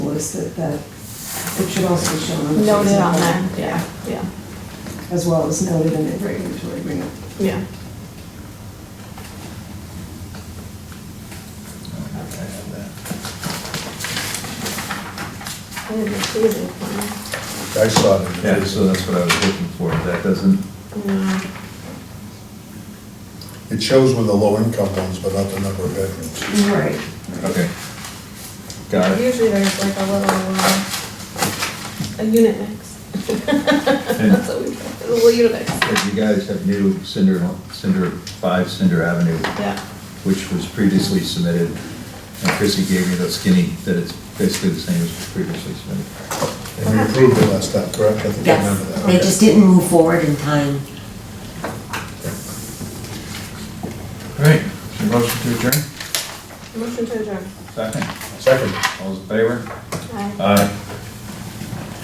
noticed that the, it should also be shown on the. Noted face of on the- there, yeah, yeah, As well as noted in the regulatory agreement. yeah. I didn't see the plan. I saw it. Yeah, so that's what I was looking for, that doesn't, No. It shows with the low income ones, but not the number of bedrooms. Mm-hmm. Right. okay. Got it. Usually there's like a little, uh, a unit mix. That's what we, a little unit mix, But you guys have new Cinder, Cinder, five Cinder Avenue, yeah. which was previously submitted. And Chrissy gave me that skinny, that it's basically the same as previously submitted. And we approved it last time, correct? I think I remember Yes, they that. just didn't move forward in time. All right, is there a motion to adjourn? Motion to adjourn. Second, Second. all's in favor? Aye. Aye.